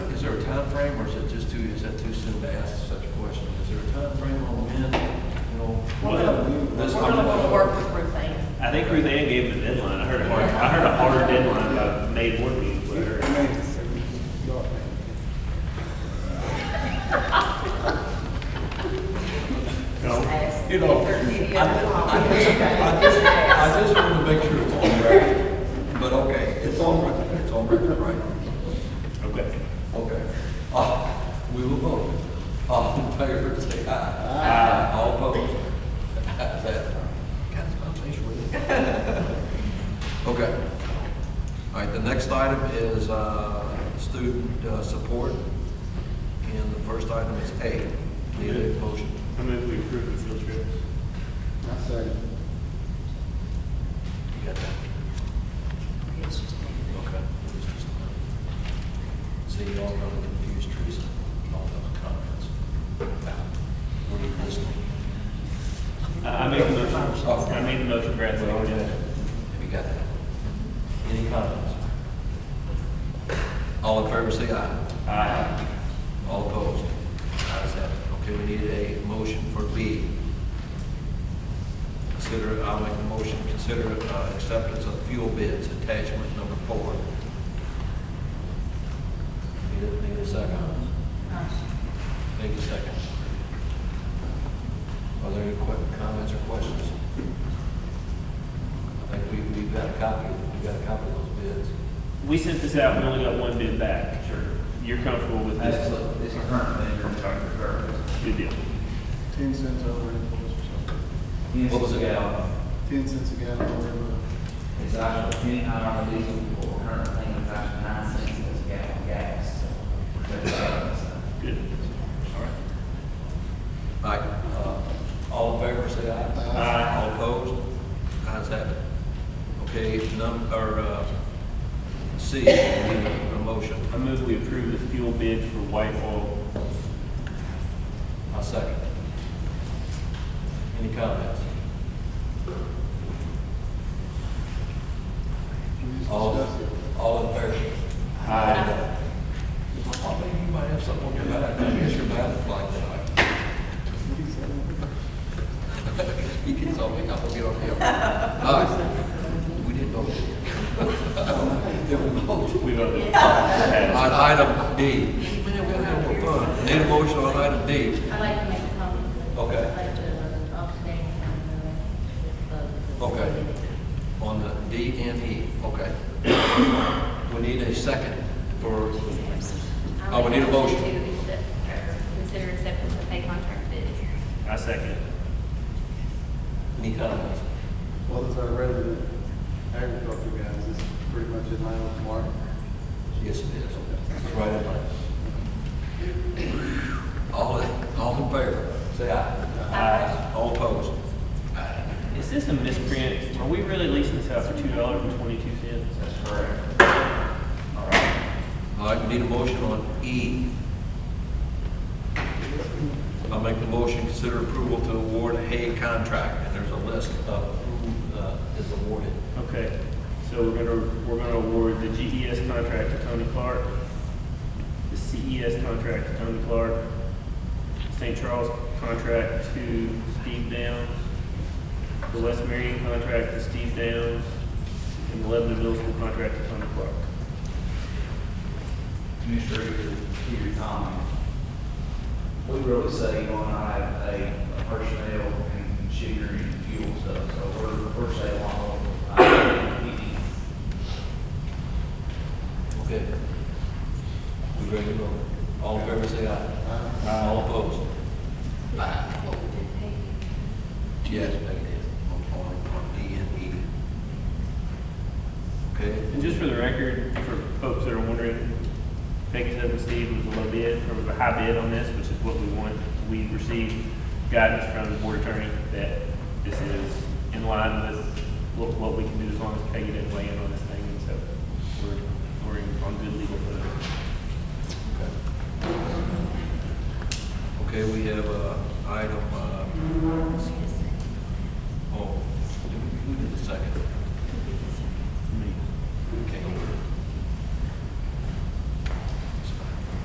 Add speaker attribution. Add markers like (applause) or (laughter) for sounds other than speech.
Speaker 1: timeframe, or is it just too, is that too soon to ask such a question? Is there a timeframe on when, you know?
Speaker 2: Well,
Speaker 1: this-
Speaker 3: We're gonna wanna work with Ruth Ann.
Speaker 2: I think Ruth Ann gave him a deadline. I heard a hard, I heard a harder deadline by May board meeting with (laughs) her. No,
Speaker 3: Ask
Speaker 1: You know,
Speaker 3: if there's any
Speaker 1: I
Speaker 3: other
Speaker 1: just, I
Speaker 3: comments.
Speaker 1: just, I just wanted to make sure it's on record, but okay, it's on record, it's on record, right?
Speaker 2: okay.
Speaker 1: Okay. Uh, we will vote. All (laughs) in favor, say aye.
Speaker 2: Uh,
Speaker 1: Ah, All opposed? That's that. God, it's my face, really. (laughs) Okay. All right, the next item is, uh, student uh, support. And the first item is A. Need a motion?
Speaker 2: I move we approve the field trips.
Speaker 1: You got that?
Speaker 3: It's just me.
Speaker 1: Okay. See, y'all got to confuse Teresa and all those comments. Were you listening?
Speaker 2: I, I made the motion. I made the motion, Brad.
Speaker 1: Well, yeah. Have you got that? Any comments? All in favor, say aye.
Speaker 2: Aye.
Speaker 1: All opposed? Ayes have it. Okay, we need a motion for B. Consider, I'll make a motion, consider uh, acceptance of fuel bids, attachment number four. Need a, need a second? Need a second. Are there any que, comments or questions? I think we, we've got a copy, we've got a copy of those bids.
Speaker 2: We sent this out, we only got one bid back. Sure. You're comfortable with this?
Speaker 4: That's the, it's the current vendor, Dr. Curtis.
Speaker 2: Good deal.
Speaker 5: Ten cents over impulse or something.
Speaker 1: What was it?
Speaker 5: Ten cents a gallon or whatever.
Speaker 4: It's actually ten hour diesel, or current thing is actually nine cents a gallon gas. so, but, uh,
Speaker 2: Good.
Speaker 1: All right. All right, uh, all in favor, say aye.
Speaker 2: Aye.
Speaker 1: All opposed? Ayes have it. Okay, num, or, uh, C, we need a motion.
Speaker 2: I move we approve the fuel bid for white oil.
Speaker 1: I'll second. Any comments?
Speaker 5: We just
Speaker 1: All,
Speaker 5: discussed it.
Speaker 1: all in favor?
Speaker 2: Aye.
Speaker 1: I think you might have something on your back. I guess your back flag tonight.
Speaker 5: What do you say?
Speaker 1: He gets on me, I'm gonna get on him. All right. We didn't vote. Did we vote?
Speaker 2: We (laughs) voted.
Speaker 1: On item D. Man, we're having fun. Need a motion on item D.
Speaker 3: I'd like to make a comment.
Speaker 1: Okay.
Speaker 3: I'd like to talk to Dan, uh, with, uh,
Speaker 1: Okay. On the D and E, okay. We need a second for, Oh, we need a motion.
Speaker 6: To accept or Consider acceptance of pay contract bids.
Speaker 2: I second.
Speaker 1: any comments?
Speaker 5: Well, as our resident agriculture guys, this is pretty much in line with Mark.
Speaker 1: Yes, it is. It's right in line. All, in- all in favor, say aye.
Speaker 2: Aye.
Speaker 1: All opposed? Aye.
Speaker 2: Is this a misprint? Are we really leasing this out for two dollars and twenty-two cents?
Speaker 4: That's correct.
Speaker 1: All right, we need a motion on E. I'll make the motion, consider approval to award Hay contract, and there's a list of who uh, is awarded.
Speaker 2: Okay, so we're gonna, we're gonna award the GES contract to Tony Clark, the CES contract to Tony Clark, St. Charles contract to Steve Downs, the West Marion contract to Steve Downs, and the Lebanon Middle School contract to Tony Clark.
Speaker 4: Commissioner, to your comment, we really say on item A, uh, personnel and sugar and fuel stuff, so we're, we're saying along with item B.
Speaker 1: Okay. We ready to vote? All in favor, say aye. Aye. All opposed? Aye. Yes, Peggy did. On, on on D and E. Okay,
Speaker 2: And just for the record, for folks that are wondering, Peggy Seven Steve was a low bid, or was a high bid on this, which is what we want. We received guidance from the board attorney that this is in line with what, what we can do as long as Peggy didn't weigh in on this thing, and so we're, we're in- on good legal footing.
Speaker 1: okay, we have, uh, item, uh, oh, who did the second?